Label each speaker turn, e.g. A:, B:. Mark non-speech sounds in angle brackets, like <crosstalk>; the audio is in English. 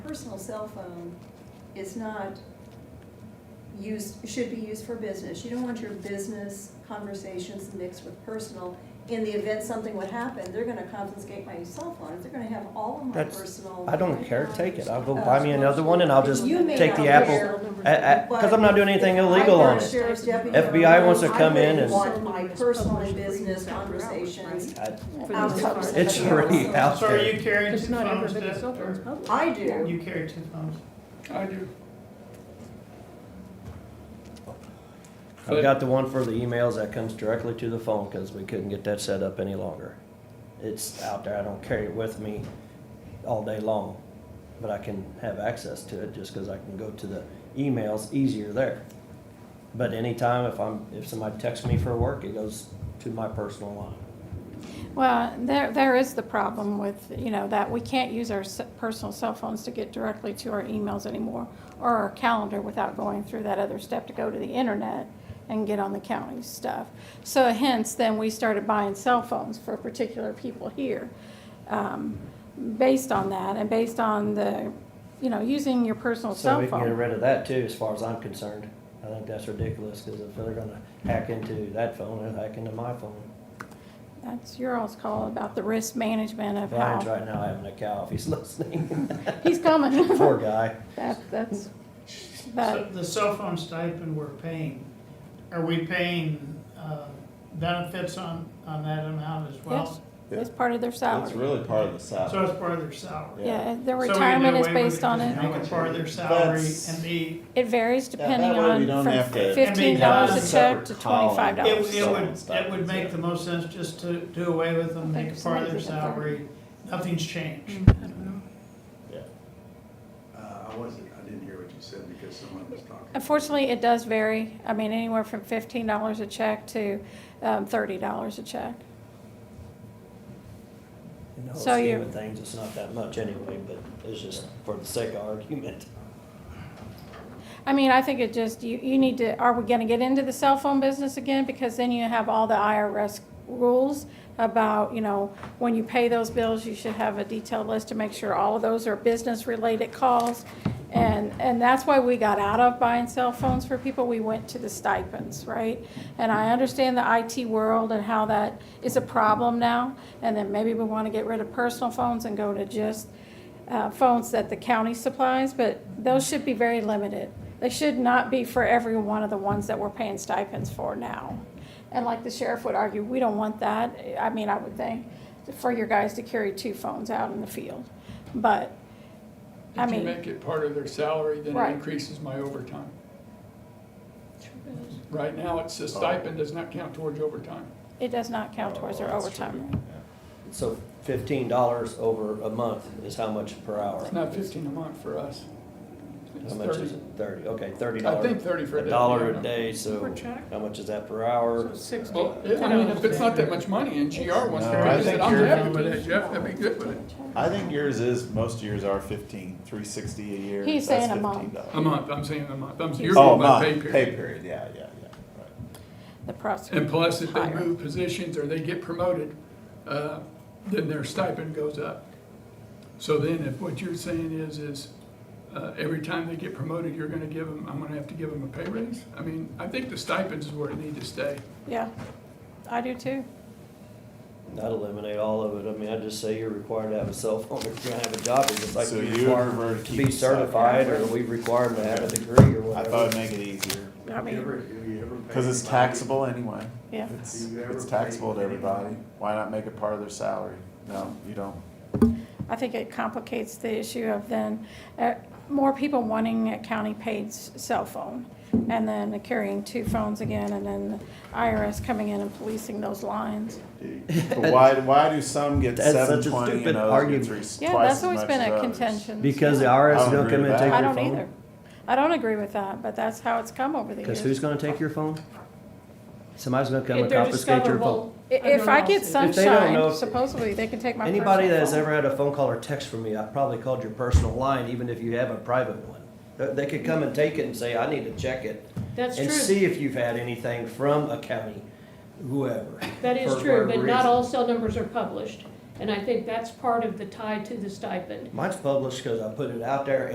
A: personal cell phone is not used, should be used for business. You don't want your business conversations mixed with personal. In the event something would happen, they're gonna confiscate my cell phone, they're gonna have all of my
B: That's-
A: personal.
B: I don't care, take it. I'll go buy me another one and I'll just
A: You may
B: take
A: not
B: the
A: care,
B: apple. Because I'm not doing anything illegal on it. FBI wants to come in and-
A: I wouldn't want my personal and business conversations.
B: I-
A: Outcomes of
B: It's
A: somebody
B: already
A: else's.
B: out
C: So are
B: there.
C: you carrying two
D: Because not
C: phones,
D: everybody's
C: Deb?
D: cell phone's
C: Or
D: public.
A: I do,
C: You carry two phones?
E: I do.
B: I've got the one for the emails that comes directly to the phone because we couldn't get that set up any longer. It's out there. I don't carry it with me all day long, but I can have access to it just because I can go to the emails easier there. But anytime if I'm, if somebody texts me for work, it goes to my personal line.
F: Well, there, there is the problem with, you know, that we can't use our s- personal cell phones to get directly to our emails anymore or our calendar without going through that other step to go to the internet and get on the county stuff. So hence, then we started buying cell phones for particular people here. um, Based on that and based on the, you know, using your personal
B: So
F: cell
B: we can get
F: phone.
B: rid of that too, as far as I'm concerned. I think that's ridiculous, because if they're gonna hack into that phone, they'll hack into my phone.
F: That's your all's call about the risk management of
B: Brian's
F: how,
B: right now having a cow if he's <laughs> listening.
F: he's coming.
B: Poor guy.
F: That- That's, but.
C: So The cell phone stipend we're paying, are we paying uh, benefits on, on that amount as well?
F: Yes. It's part of their
G: It's
F: salary.
G: really part of the
C: So
G: salary.
C: it's part of their salary?
F: Yeah, their
C: So we can do
F: retirement is
C: away with
F: based on it.
C: Make it part of their salary
G: That's-
C: and be,
F: It varies
G: Yeah, that
F: depending
G: way we
F: on
G: don't
F: from
G: have to-
F: fifteen dollars
C: Every
F: a check to
G: separate column.
F: twenty-five
C: it
F: dollars.
C: it would, it would make the most sense just to do away with them, make it part of their salary. Nothing's changed.
E: Uh, I wasn't, I didn't hear what you said because someone was talking.
F: Unfortunately, it does vary. I mean, anywhere from fifteen dollars a check to, um, thirty dollars a check.
B: In the whole
F: So
B: scheme
F: you're-
B: of things, it's not that much anyway, but it's just for the sake of argument.
F: I mean, I think it just, you, you need to, are we gonna get into the cell phone business again? Because then you have all the IRS rules about, you know, when you pay those bills, you should have a detailed list to make sure all of those are business-related calls. And, and that's why we got out of buying cell phones for people, we went to the stipends, right? And I understand the IT world and how that is a problem now, and then maybe we wanna get rid of personal phones and go to just, uh, phones that the county supplies, but those should be very limited. They should not be for every one of the ones that we're paying stipends for now. And like the sheriff would argue, we don't want that. I mean, I would think for your guys to carry two phones out in the field. But, I
E: If you
F: mean,
E: make it part of their salary, then it
F: Right.
E: increases my overtime. Right now, it's a stipend, does not count towards overtime.
F: it does not count towards their
G: Oh, that's
F: overtime.
G: true.
B: So fifteen dollars over a month is how much per hour?
E: It's not fifteen a month for us. It's
B: How much is
E: 30.
B: it? Thirty, okay, thirty
E: I
B: dollars.
E: think thirty for a
B: A
E: day.
B: dollar
E: yeah.
B: a day,
D: Per
B: so
D: check?
B: how much is that per hour?
D: So six.
E: Well, yeah, I mean, if it's not that much money and GR wants to
G: No, I
E: raise it,
G: think
E: I'm
G: you're-
E: happy with it, Jeff, that'd be good with it.
G: I think yours is, most of yours are fifteen, three sixty a year.
F: He's
G: that's
F: saying a month.
G: $15.
E: A month, I'm saying a month, I'm, you're
G: Oh, a
E: going by pay
G: month,
E: period.
G: pay period, yeah, yeah, yeah, right.
F: The prosecutor.
E: And plus, if they
F: higher.
E: move positions or they get promoted, uh, then their stipend goes up. So then, if what you're saying is, is uh, every time they get promoted, you're gonna give them, I'm gonna have to give them a pay raise? I mean, I think the stipends is where it need to stay.
F: Yeah, I do too.
B: That'd eliminate all of it. I mean, I'd just say you're required to have a cell phone if you're gonna have a job, it's just like
G: So
B: you're
G: you
B: required
G: prefer to
B: to
G: keep
B: be
G: the stipend.
B: certified, or we require them to have a degree or
G: I
B: whatever.
G: thought it'd make it easier,
F: I mean,
G: cause it's taxable anyway.
F: yeah.
G: It's, it's taxable to everybody. Why not make it part of their salary? No, you don't.
F: I think it complicates the issue of then uh, more people wanting a county-paid s- cell phone, and then carrying two phones again, and then the IRS coming in and policing those lines.
B: <laughs>
G: But why, why do some get
B: That's such a
G: seven twenty
B: stupid
G: and others get
B: argument.
G: three,
F: Yeah,
G: twice
F: that's
G: as
F: always
G: much
F: been
G: as
F: a
G: others?
F: contention.
B: Because the
G: I
B: IRS don't
G: don't
B: come in
G: agree
B: and
G: with
B: take
G: that.
F: I
B: your
F: don't
B: phone.
F: either. I don't agree with that, but that's how it's come over the years.
B: Because who's gonna take your phone? Somebody's gonna come
D: If
B: and
D: they're
B: confiscate your phone.
D: discoverable
F: I- If
D: under
F: I get
D: lawsuit.
B: If they don't know-
F: sunshine, supposedly, they can take my personal phone.
B: Anybody that has ever had a phone call or text from me, I probably called your personal line, even if you have a private one. They- They could come and take it and say, I need to check it.
D: That's
B: And
D: true.
B: see if you've had anything from a county, whoever.
D: That is
B: for
D: true,
B: whatever
D: but
B: reason.
D: not all cell numbers are published.
H: And I think that's part of the tie to the stipend.
D: Mine's published because I put it out there